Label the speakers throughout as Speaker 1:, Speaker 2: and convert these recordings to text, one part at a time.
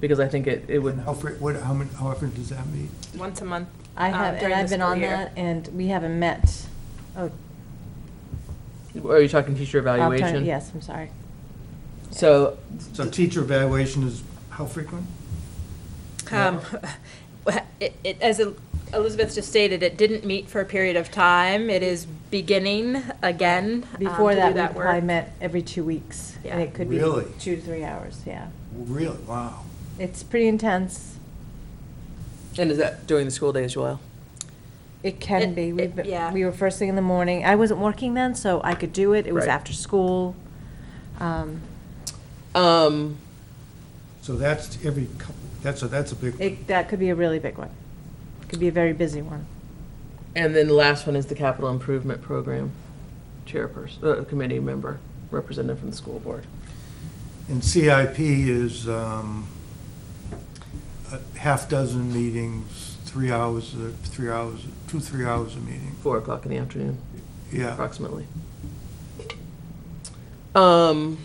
Speaker 1: because I think it, it would,
Speaker 2: And how fre, what, how many, how often does that meet?
Speaker 3: once a month.
Speaker 4: I
Speaker 3: um,
Speaker 4: have, and
Speaker 3: during the
Speaker 4: I've been
Speaker 3: school
Speaker 4: on
Speaker 3: year.
Speaker 4: that, and we haven't met. Oh,
Speaker 1: are you talking teacher
Speaker 4: I'm trying-
Speaker 1: evaluation?
Speaker 4: Yes, I'm sorry.
Speaker 1: So,
Speaker 2: So teacher evaluation is how frequent?
Speaker 3: Um, it- it- As El- Elizabeth just stated, it didn't meet for a period of time. It is beginning again. um,
Speaker 4: Before
Speaker 3: to do
Speaker 4: that, we probably
Speaker 3: work.
Speaker 4: met every two weeks, and
Speaker 3: Yeah.
Speaker 4: it could be
Speaker 2: Really?
Speaker 4: two to three hours, yeah.
Speaker 2: Really? Wow.
Speaker 4: It's pretty intense.
Speaker 1: and is that during the school day as well?
Speaker 4: It can
Speaker 3: It-
Speaker 4: be. We've
Speaker 3: it-
Speaker 4: been-
Speaker 3: yeah.
Speaker 4: We were first thing in the morning. I wasn't working then, so I could do it. It was
Speaker 1: Right.
Speaker 4: after school. Um,
Speaker 1: Um,
Speaker 2: So that's every couple, that's, a that's a big.
Speaker 4: It, that could be a really big one. Could be a very busy one.
Speaker 1: and then the last one is the capital improvement program chairperson, uh, committee member, representative from the school board.
Speaker 2: And CIP is um, a half dozen meetings, three hours, uh, three hours, two, three hours a meeting.
Speaker 1: Four o'clock in the afternoon,
Speaker 2: Yeah.
Speaker 1: approximately. Um,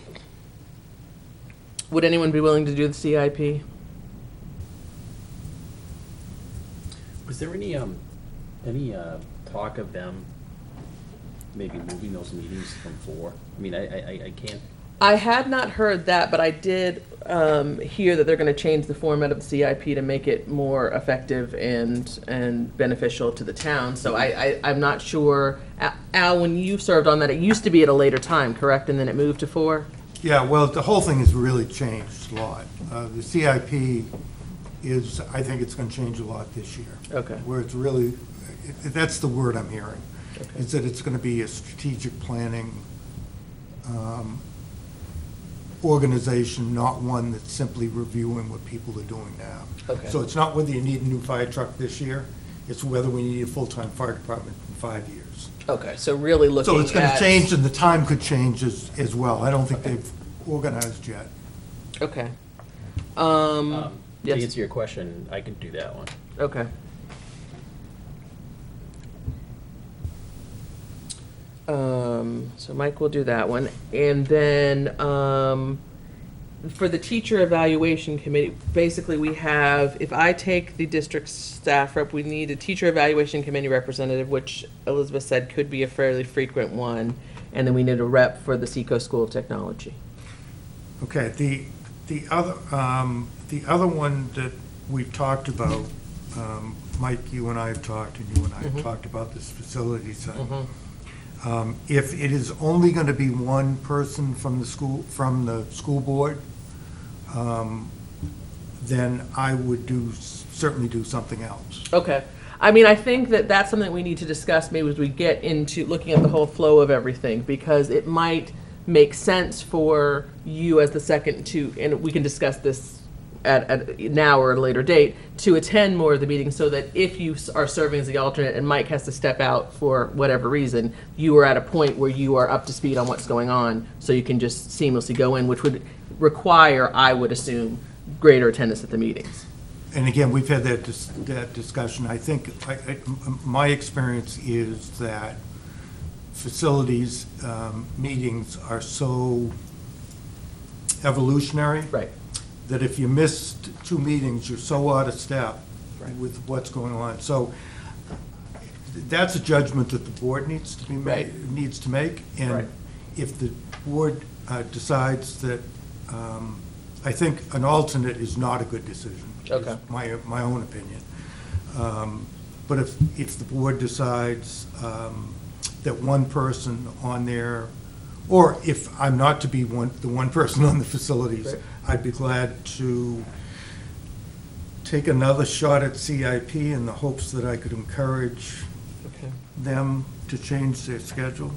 Speaker 1: would anyone be willing to do the CIP?
Speaker 5: Was there any, um, any, uh, talk of them maybe moving those meetings from four? I mean, I, I, I- I can't,
Speaker 1: I had not heard that, but I did um, hear that they're going to change the format of the CIP to make it more effective and and beneficial to the town. So I, I I'm not sure. Al- Al, when you served on that, it used to be at a later time, correct? And then it moved to four.
Speaker 2: Yeah, well, the whole thing has really changed a lot. Uh, The CIP is, I think it's going to change a lot this year.
Speaker 1: Okay.
Speaker 2: Where it's really, i- that's the word I'm hearing,
Speaker 1: Okay.
Speaker 2: is that it's going to be a strategic planning um, organization, not one that's simply reviewing what people are doing now.
Speaker 1: Okay.
Speaker 2: So it's not whether you need a new fire truck this year, it's whether we need a full-time fire department in five years.
Speaker 1: Okay. So really looking.
Speaker 2: So it's going to
Speaker 1: at-
Speaker 2: change, and the time could change as, as well. I don't think they've organized yet.
Speaker 1: Okay. Um.
Speaker 5: um, to
Speaker 1: yes.
Speaker 5: answer your question, I can do that one.
Speaker 1: Okay. Um, so Mike will do that one. And then, um, for the teacher evaluation committee, basically we have, if I take the district staff rep, we need a teacher evaluation committee representative, which Elizabeth said could be a fairly frequent one. And then we need a rep for the Seco School of Technology.
Speaker 2: Okay, the, the other, um, the other one that we talked about, um, Mike, you and I have talked, and you and I have talked about this facility thing. Um, If it is only going to be one person from the school, from the school board, um, then I would do, certainly do something else.
Speaker 1: Okay. I mean, I think that that's something we need to discuss maybe as we get into looking at the whole flow of everything, because it might make sense for you as the second to, and we can discuss this at, at now or at a later date, to attend more of the meetings so that if you s- are serving as the alternate and Mike has to step out for whatever reason, you are at a point where you are up to speed on what's going on, so you can just seamlessly go in, which would require, I would assume, greater attendance at the meetings.
Speaker 2: And again, we've had that, dis- that discussion. I think, I- I- m- my experience is that facilities, um, meetings are so evolutionary.
Speaker 1: Right.
Speaker 2: That if you missed two meetings, you're so out of step
Speaker 1: Right.
Speaker 2: with what's going on. So that's a judgment that the board needs to be
Speaker 1: Right.
Speaker 2: made, needs to make.
Speaker 1: Right.
Speaker 2: And if the board uh, decides that, um, I think an alternate is not a good decision. is
Speaker 1: Okay.
Speaker 2: My, my own opinion. Um, But if, if the board decides um, that one person on there, or if I'm not to be one, the one person on the facilities,
Speaker 1: Right.
Speaker 2: I'd be glad to take another shot at CIP in the hopes that I could encourage
Speaker 1: Okay.
Speaker 2: them to change their schedule.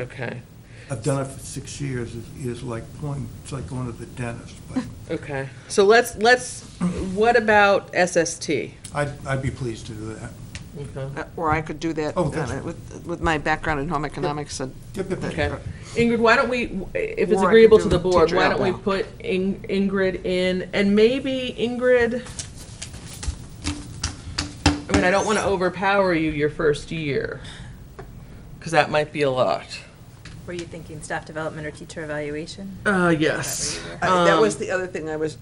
Speaker 1: Okay.
Speaker 2: I've done it for six years, It is like going, it's like going to the dentist, but
Speaker 1: Okay, so let's, let's, what about SST?
Speaker 2: I'd, I'd be pleased to do that.
Speaker 1: Okay.
Speaker 6: Uh, Or I could do that
Speaker 2: Oh, that's-
Speaker 6: uh, with, with my background in home economics and
Speaker 2: Yep, yep, yep.
Speaker 1: Okay. Ingrid, why don't we, if it's
Speaker 6: Or I could
Speaker 1: agreeable to
Speaker 6: do
Speaker 1: the board,
Speaker 6: teacher
Speaker 1: why don't we
Speaker 6: outbound.
Speaker 1: put In- Ingrid in, and maybe Ingrid, I mean, I don't want to overpower you your first year, because that might be a lot.
Speaker 3: Were you thinking staff development or teacher evaluation?
Speaker 1: Uh, yes.
Speaker 6: I- that
Speaker 1: Um,
Speaker 6: was the other thing I was